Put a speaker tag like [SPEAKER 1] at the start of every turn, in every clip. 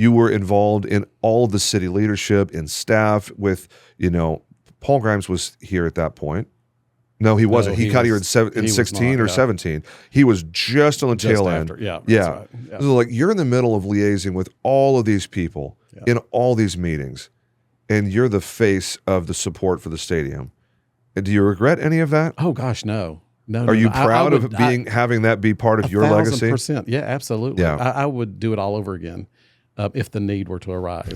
[SPEAKER 1] you were involved in all the city leadership and staff with, you know, Paul Grimes was here at that point. No, he wasn't. he,
[SPEAKER 2] he
[SPEAKER 1] got here
[SPEAKER 2] was-
[SPEAKER 1] in, seven,
[SPEAKER 2] he
[SPEAKER 1] in
[SPEAKER 2] was
[SPEAKER 1] 16
[SPEAKER 2] not,
[SPEAKER 1] or
[SPEAKER 2] yeah.
[SPEAKER 1] 17. He was just on the
[SPEAKER 2] Just
[SPEAKER 1] tail
[SPEAKER 2] after.
[SPEAKER 1] end.
[SPEAKER 2] Yeah. that's
[SPEAKER 1] Yeah.
[SPEAKER 2] right. yeah.
[SPEAKER 1] So like you're in the middle of liaising with all of these people
[SPEAKER 2] Yeah.
[SPEAKER 1] in all these meetings, and you're the face of the support for the stadium. And do you regret any of that?
[SPEAKER 2] Oh gosh, no, no. no,
[SPEAKER 1] Are you
[SPEAKER 2] no. I- I
[SPEAKER 1] proud of
[SPEAKER 2] would- I-
[SPEAKER 1] being having that be part of
[SPEAKER 2] a
[SPEAKER 1] your
[SPEAKER 2] thousand
[SPEAKER 1] legacy?
[SPEAKER 2] Percent. Yeah, absolutely.
[SPEAKER 1] Yeah.
[SPEAKER 2] I, I would do it all over again uh, if the need were to arise.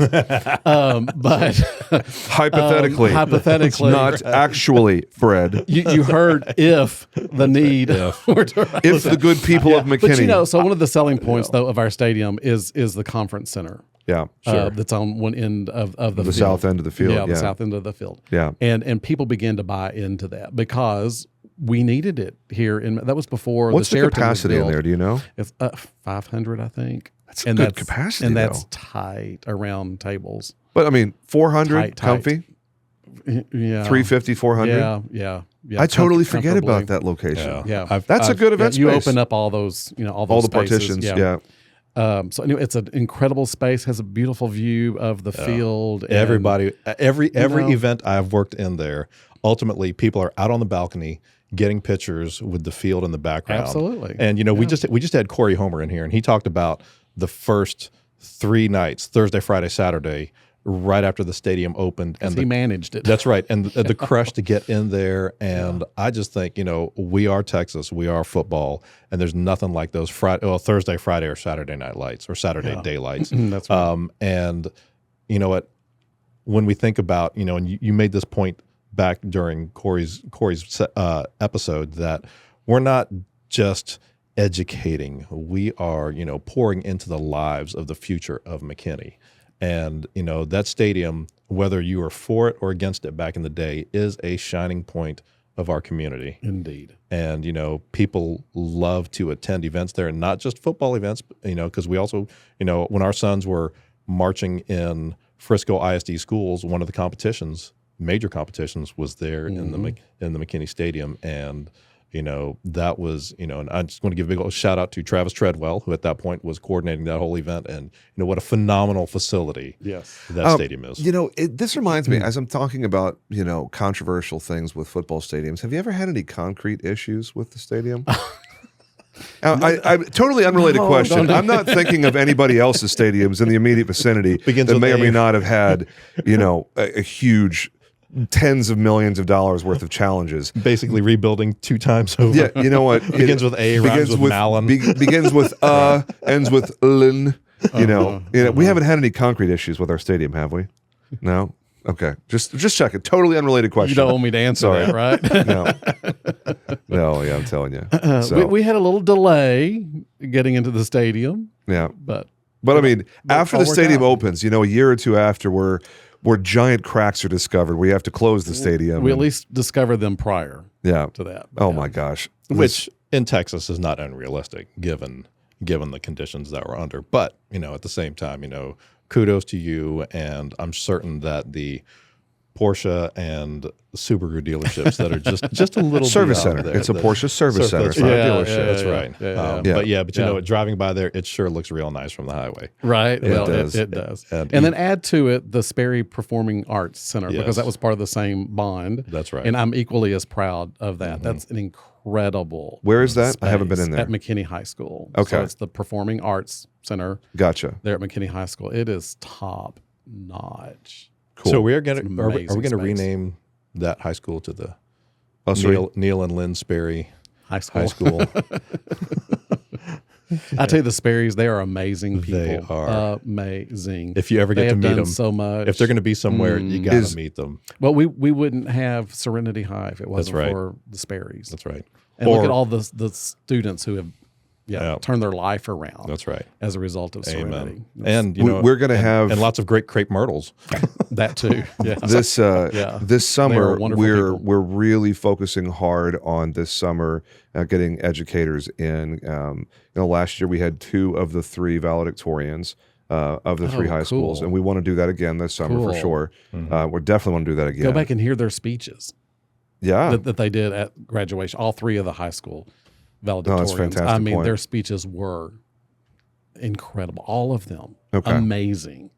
[SPEAKER 2] um, but
[SPEAKER 1] Hypothetically,
[SPEAKER 2] um, hypothetically,
[SPEAKER 1] not actually, Fred.
[SPEAKER 2] you, you heard if the need were to arise.
[SPEAKER 1] If the good people of McKinney,
[SPEAKER 2] But you know, so one of the selling points though of our stadium is is the conference center
[SPEAKER 1] yeah,
[SPEAKER 2] uh, that's on one end of, of the,
[SPEAKER 1] the
[SPEAKER 2] field.
[SPEAKER 1] south end of the field,
[SPEAKER 2] yeah,
[SPEAKER 1] yeah,
[SPEAKER 2] the south end of the field.
[SPEAKER 1] yeah.
[SPEAKER 2] and and people began to buy into that because we needed it here in that was before
[SPEAKER 1] What's
[SPEAKER 2] the,
[SPEAKER 1] the,
[SPEAKER 2] Sheraton was
[SPEAKER 1] capacity in
[SPEAKER 2] built.
[SPEAKER 1] there? Do you know?
[SPEAKER 2] it's uh, 500 i think
[SPEAKER 1] That's a good capacity,
[SPEAKER 2] and
[SPEAKER 1] though.
[SPEAKER 2] that's tight around tables
[SPEAKER 1] But I mean, 400
[SPEAKER 2] Tight, tight.
[SPEAKER 1] comfy,
[SPEAKER 2] yeah
[SPEAKER 1] 350, 400.
[SPEAKER 2] yeah yeah yeah
[SPEAKER 1] I
[SPEAKER 2] Com-
[SPEAKER 1] totally forget about
[SPEAKER 2] comfortably.
[SPEAKER 1] that location.
[SPEAKER 2] yeah
[SPEAKER 1] That's a good
[SPEAKER 2] yeah,
[SPEAKER 1] event
[SPEAKER 2] you
[SPEAKER 1] space.
[SPEAKER 2] open up all those you know all, those
[SPEAKER 1] All the
[SPEAKER 2] spaces,
[SPEAKER 1] partitions, yeah.
[SPEAKER 2] Um, so anyway, it's an incredible space. Has a beautiful view of the field. and-
[SPEAKER 3] Everybody, every every
[SPEAKER 2] know-
[SPEAKER 3] event I've worked in there, ultimately people are out on the balcony getting pictures with the field in the background.
[SPEAKER 2] Absolutely.
[SPEAKER 3] And you know, we just we just had Corey Homer in here, and he talked about the first three nights: Thursday, Friday, Saturday, right after the stadium opened, and
[SPEAKER 2] he
[SPEAKER 3] the
[SPEAKER 2] managed it.
[SPEAKER 3] That's right. And the, the crush to get in there. And I just think, you know, we are Texas, we are football, and there's nothing like those Friday, well, Thursday, Friday, or Saturday night lights or Saturday daylights.
[SPEAKER 2] That's
[SPEAKER 1] Uh,
[SPEAKER 2] right.
[SPEAKER 3] Um, and you know what? When we think about, you know, and you, you made this point back during Corey's Corey's se- uh, episode that we're not just educating; we are, you know, pouring into the lives of the future of McKinney. And you know that stadium, whether you are for it or against it back in the day, is a shining point of our community
[SPEAKER 2] indeed.
[SPEAKER 3] and you know people love to attend events there and not just football events but, you know because we also you know when our sons were marching in frisco isd schools one of the competitions major competitions was there in
[SPEAKER 1] Mm-hmm.
[SPEAKER 3] the Mc- in the mckinney stadium and you know that was you know and i just want to give a big old shout out to travis treadwell who at that point was coordinating that whole event and you know what a phenomenal facility
[SPEAKER 2] Yes.
[SPEAKER 3] that
[SPEAKER 1] Um,
[SPEAKER 3] stadium is
[SPEAKER 1] You know, it, this reminds
[SPEAKER 3] Hmm.
[SPEAKER 1] me as I'm talking about you know controversial things with football stadiums. Have you ever had any concrete issues with the stadium? Uh, I, I, totally unrelated
[SPEAKER 2] No,
[SPEAKER 1] question.
[SPEAKER 2] don't-
[SPEAKER 1] I'm not thinking of anybody else's stadiums in the immediate vicinity
[SPEAKER 3] Begins
[SPEAKER 1] that
[SPEAKER 3] with
[SPEAKER 1] may or may
[SPEAKER 3] A.
[SPEAKER 1] not have had, you know, a, a huge tens of millions of dollars worth of challenges.
[SPEAKER 3] basically rebuilding two times over
[SPEAKER 1] Yeah, you know what? It
[SPEAKER 3] Begins with A, rhymes with Malin.
[SPEAKER 1] be- begins with uh, ends with lin.
[SPEAKER 3] Uh-huh,
[SPEAKER 1] You know, you know, we haven't had any concrete issues with our stadium, have we? No. Okay, just just check it. Totally unrelated question.
[SPEAKER 2] You don't want me to answer
[SPEAKER 1] Sorry.
[SPEAKER 2] that, right?
[SPEAKER 1] No. no. Yeah, I'm telling you. So,
[SPEAKER 2] Uh, we, we had a little delay getting into the stadium,
[SPEAKER 1] yeah,
[SPEAKER 2] but
[SPEAKER 1] but I mean,
[SPEAKER 2] it
[SPEAKER 1] after
[SPEAKER 2] all
[SPEAKER 1] the
[SPEAKER 2] worked
[SPEAKER 1] stadium
[SPEAKER 2] out.
[SPEAKER 1] opens, you know, a year or two after, where where giant cracks are discovered, we have to close the stadium.
[SPEAKER 2] we at
[SPEAKER 1] and-
[SPEAKER 2] least discovered them prior
[SPEAKER 1] yeah.
[SPEAKER 2] to that.
[SPEAKER 1] Oh
[SPEAKER 2] Yeah.
[SPEAKER 1] my gosh.
[SPEAKER 3] which in Texas is not unrealistic given given the conditions that we're under. But you know, at the same time, you know, kudos to you, and I'm certain that the Porsche and Subaru dealerships that are just just a little
[SPEAKER 1] Service
[SPEAKER 3] beyond
[SPEAKER 1] center.
[SPEAKER 3] there,
[SPEAKER 1] It's a
[SPEAKER 3] the-
[SPEAKER 1] Porsche service center.
[SPEAKER 3] Sir, That's right.
[SPEAKER 2] Yeah,
[SPEAKER 3] dealership.
[SPEAKER 2] yeah,
[SPEAKER 3] that's
[SPEAKER 2] yeah,
[SPEAKER 3] right.
[SPEAKER 2] yeah, yeah.
[SPEAKER 3] Um,
[SPEAKER 1] Yeah.
[SPEAKER 3] But yeah, but you
[SPEAKER 2] Yeah.
[SPEAKER 3] know, what, driving by there, it sure looks real nice from the highway.
[SPEAKER 2] Right. well,
[SPEAKER 1] does.
[SPEAKER 2] It, it does.
[SPEAKER 3] And
[SPEAKER 2] And, then add to it the Sperry Performing Arts Center because
[SPEAKER 3] Yes.
[SPEAKER 2] that was part of the same bond.
[SPEAKER 3] That's right.
[SPEAKER 2] And I'm equally as proud of that. That's an incredible.
[SPEAKER 1] Mm-hmm.
[SPEAKER 2] um,
[SPEAKER 1] Where is that? I haven't been
[SPEAKER 2] space
[SPEAKER 1] in there.
[SPEAKER 2] At McKinney High School.
[SPEAKER 1] Okay.
[SPEAKER 2] So it's the Performing Arts Center
[SPEAKER 1] Gotcha.
[SPEAKER 2] there at McKinney High School. It is top notch.
[SPEAKER 1] Cool.
[SPEAKER 3] So we are going
[SPEAKER 2] It's an
[SPEAKER 3] to are, we- are
[SPEAKER 2] amazing
[SPEAKER 3] we going to
[SPEAKER 2] space.
[SPEAKER 3] rename that high school to the
[SPEAKER 1] Oh, sorry.
[SPEAKER 3] Neil, Neil and Lynn Sperry
[SPEAKER 2] High school.
[SPEAKER 3] High School?
[SPEAKER 2] I tell you, the Sperrys, they are amazing people.
[SPEAKER 3] They are.
[SPEAKER 2] amazing.
[SPEAKER 3] if you ever
[SPEAKER 2] they
[SPEAKER 3] get to
[SPEAKER 2] have
[SPEAKER 3] meet
[SPEAKER 2] done
[SPEAKER 3] them,
[SPEAKER 2] so much.
[SPEAKER 3] if they're going to be somewhere, you got
[SPEAKER 1] Mm. Is-
[SPEAKER 3] to meet them.
[SPEAKER 2] Well, we we wouldn't have Serenity High if it wasn't
[SPEAKER 3] right.
[SPEAKER 2] for the Sperrys.
[SPEAKER 3] That's right.
[SPEAKER 2] And look
[SPEAKER 3] Or-
[SPEAKER 2] at all the the students who have yeah,
[SPEAKER 3] Yeah.
[SPEAKER 2] turned their life around
[SPEAKER 3] That's right.
[SPEAKER 2] as a result of Serenity.
[SPEAKER 3] Amen. And you
[SPEAKER 1] We-
[SPEAKER 3] know,
[SPEAKER 1] we're gonna have-
[SPEAKER 3] and lots of great crepe myrtles.
[SPEAKER 2] That too. Yeah.
[SPEAKER 1] this uh,
[SPEAKER 2] Yeah.
[SPEAKER 1] this summer
[SPEAKER 2] wonderful
[SPEAKER 1] we're
[SPEAKER 2] people.
[SPEAKER 1] we're really focusing hard on this summer uh, getting educators in. Um, you know, last year we had two of the three valedictorians uh, of the three
[SPEAKER 2] Oh,
[SPEAKER 1] high schools,
[SPEAKER 2] cool.
[SPEAKER 1] and we want to do that again this summer for
[SPEAKER 2] Cool.
[SPEAKER 1] sure. Uh, we definitely want to do that again.
[SPEAKER 2] Go back and hear their speeches
[SPEAKER 3] Ah.
[SPEAKER 1] yeah,
[SPEAKER 2] that, that they did at graduation. All three of the high school valedictorians.
[SPEAKER 1] fantastic
[SPEAKER 2] I mean,
[SPEAKER 1] point.
[SPEAKER 2] their speeches were incredible. All of them
[SPEAKER 1] Okay.
[SPEAKER 2] amazing.